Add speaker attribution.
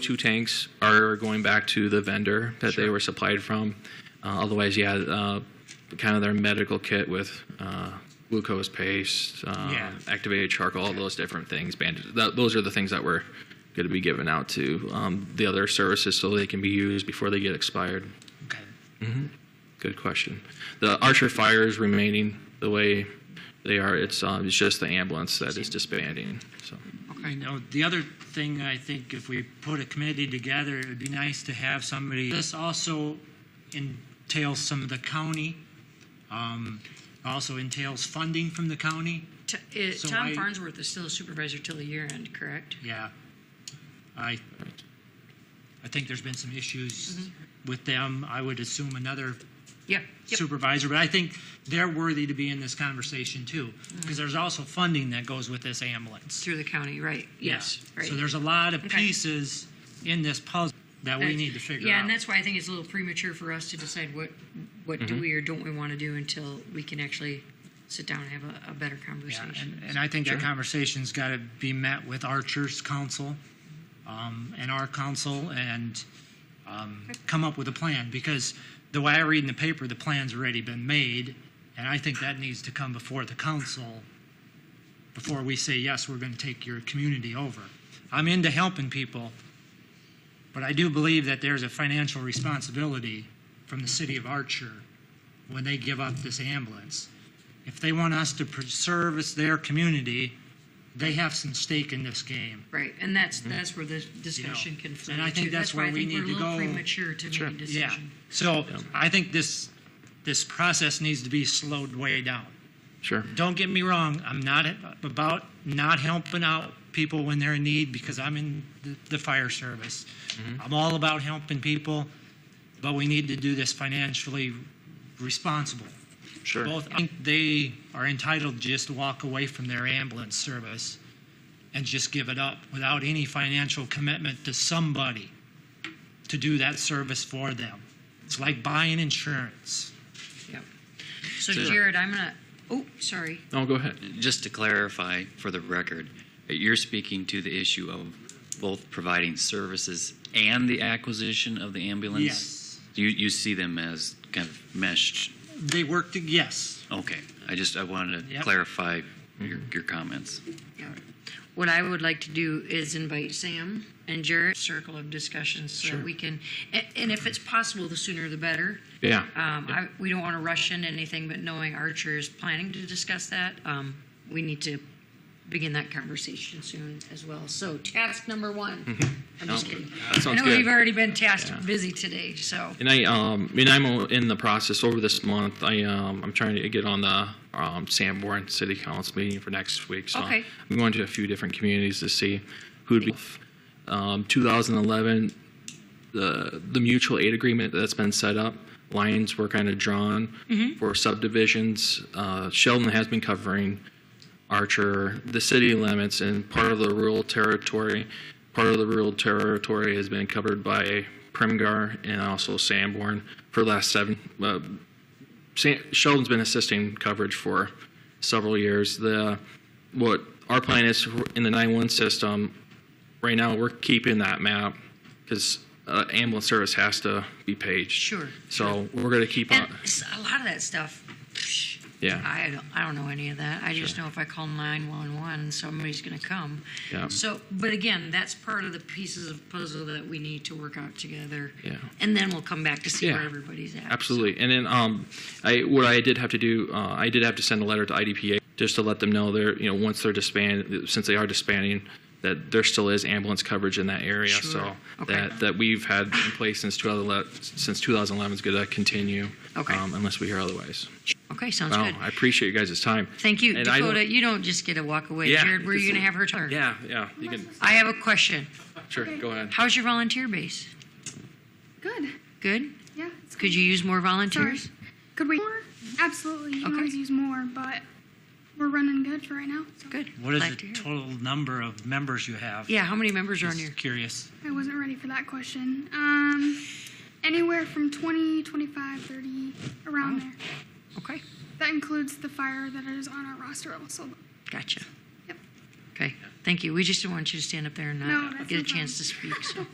Speaker 1: Two tanks are going back to the vendor that they
Speaker 2: Sure.
Speaker 1: were supplied from. Uh, otherwise, yeah, uh, kind of their medical kit with uh, glucose paste, uh,
Speaker 2: Yeah.
Speaker 1: activated charcoal, all those different things. Bandages. That, those are the things that we're going to be giving out to um, the other services so they can be used before they get expired.
Speaker 2: Okay.
Speaker 1: Good question. The Archer Fire is remaining the way they are. It's um, it's just the ambulance that is disbanding. So
Speaker 2: Okay, now, the other thing, I think if we put a committee together, it would be nice to have somebody, this also entails some of the county, um, also entails funding from the county.
Speaker 3: T- uh,
Speaker 2: So
Speaker 3: Tom
Speaker 2: I-
Speaker 3: Farnsworth is still a supervisor till the year end, correct?
Speaker 2: Yeah. I, I think there's been some issues with them. I would assume another
Speaker 3: Yeah. Yep.
Speaker 2: supervisor, but I think they're worthy to be in this conversation too, because there's also funding that goes with this ambulance.
Speaker 3: Through the county, right? Yes.
Speaker 2: Yeah.
Speaker 3: Right.
Speaker 2: So there's a lot of
Speaker 3: Okay.
Speaker 2: pieces in this puzzle that we
Speaker 3: That's-
Speaker 2: need to figure out.
Speaker 3: Yeah, and that's why I think it's a little premature for us to decide what what do we or don't we want to do until we can actually sit down and have a, a better
Speaker 2: Yeah,
Speaker 3: conversation.
Speaker 2: and, uh, and I think that conversation's got to be met with Archer's council um, and our council and um, come up with a plan because the way I read in the paper, the plan's already been made, and I think that needs to come before the council before we say yes, we're going to take your community over. I'm into helping people, but I do believe that there's a financial responsibility from the city of Archer when they give up this ambulance if they want us to pr- service their community, they have some stake in this game.
Speaker 3: right, and that's that's where the discussion can flow.
Speaker 2: and I think
Speaker 3: to.
Speaker 2: that's where
Speaker 3: why I
Speaker 2: we
Speaker 3: think we're
Speaker 2: need to
Speaker 3: a little
Speaker 2: go.
Speaker 3: premature to make a
Speaker 2: Yeah.
Speaker 3: decision.
Speaker 2: So I think this this process needs to be slowed way down.
Speaker 1: sure.
Speaker 2: Don't get me wrong. I'm not about not helping out people when they're in need because I'm in the, the fire service. I'm all about helping people, but we need to do this financially responsible.
Speaker 1: Sure.
Speaker 2: Both, I think they are entitled to just walk away from their ambulance service and just give it up without any financial commitment to somebody to do that service for them. It's like buying insurance.
Speaker 3: Yep. So
Speaker 1: Sure.
Speaker 3: Jared, I'm gonna. Oh, sorry.
Speaker 1: No, go ahead.
Speaker 4: Just to clarify for the record, you're speaking to the issue of both providing services and the acquisition of the ambulance?
Speaker 2: Yes.
Speaker 4: You, you see them as kind of meshed?
Speaker 2: They work to, yes,
Speaker 4: Okay, I just, I wanted to
Speaker 2: Yep.
Speaker 4: clarify your, your comments.
Speaker 3: Yeah. What I would like to do is invite Sam and Jared circle of discussions so
Speaker 1: Sure.
Speaker 3: that we can, a- and if it's possible, the sooner the better.
Speaker 1: Yeah.
Speaker 3: Um, I, we don't want to rush into anything, but knowing Archer is planning to discuss that, um, we need to begin that conversation soon as well. So task number one. I'm just
Speaker 1: No,
Speaker 3: kidding.
Speaker 1: that Mm-hmm. sounds
Speaker 3: I know
Speaker 1: good.
Speaker 3: we've already been tasked busy today, so
Speaker 1: And I um and I'm o- in the process over this month. I um I'm trying to get on the um Sanborn City Council meeting for next week. So
Speaker 3: Okay.
Speaker 1: I'm going to a few different communities to see who'd be. Um, 2011, the the mutual aid agreement that's been set up. Lines were kind of drawn for subdivisions. Uh, Sheldon has been covering Archer, the city limits, and part of the rural territory. Part of the rural territory has been covered by Primgar and also Sanborn for the last seven. Uh, San- Sheldon's been assisting coverage for several years. The what our plan is in the 911 system right now. We're keeping that map because uh, ambulance service has to be paged.
Speaker 3: Sure,
Speaker 1: So we're going to keep
Speaker 3: and
Speaker 1: on.
Speaker 3: s- a lot of that stuff. psh,
Speaker 1: Yeah.
Speaker 3: I don't, I don't know any of that. I just know if I call 911, somebody's going to come.
Speaker 1: Yeah.
Speaker 3: So, but again, that's part of the pieces of puzzle that we need to work out together.
Speaker 1: Yeah.
Speaker 3: And then we'll come back to see where
Speaker 1: Yeah.
Speaker 3: everybody's at.
Speaker 1: Absolutely. And then um, I, what I did have to do, uh, I did have to send a letter to IDPA just to let them know they're, you know, once they're disbanded, since they are disbanding, that there still is ambulance coverage in that area.
Speaker 3: Sure.
Speaker 1: So
Speaker 3: Okay.
Speaker 1: that, that we've had in place since 2011, since 2011 is going to continue.
Speaker 3: Okay.
Speaker 1: Um, unless we hear otherwise.
Speaker 3: Okay, sounds
Speaker 1: Wow,
Speaker 3: good.
Speaker 1: I appreciate you guys' time.
Speaker 3: Thank you,
Speaker 1: And I don't-
Speaker 3: Dakota. You don't just get to walk away.
Speaker 1: Yeah.
Speaker 3: Jared, where are you going to have her turn?
Speaker 1: Yeah, yeah. You can,
Speaker 3: I have a question.
Speaker 1: sure, go ahead.
Speaker 3: How's your volunteer base?
Speaker 5: Good.
Speaker 3: Good?
Speaker 5: Yeah. it's
Speaker 3: Could you use more volunteers?
Speaker 5: Sorry. Could we more? Absolutely. You can
Speaker 3: Okay.
Speaker 5: always use more, but we're running good for right now. So
Speaker 3: Good.
Speaker 2: What is
Speaker 3: Glad
Speaker 2: the
Speaker 3: to hear.
Speaker 2: total number of members you have?
Speaker 3: Yeah, how many members are on your?
Speaker 2: Just curious.
Speaker 5: I wasn't ready for that question. Um, anywhere from 20, 25, 30, around there.
Speaker 3: Okay,
Speaker 5: That includes the fire that is on our roster also.
Speaker 3: gotcha.
Speaker 5: Yep.
Speaker 3: Okay, thank you. We just didn't want you to stand up there and
Speaker 5: No,
Speaker 3: not
Speaker 5: that's
Speaker 3: get a
Speaker 5: no
Speaker 3: chance to speak, so.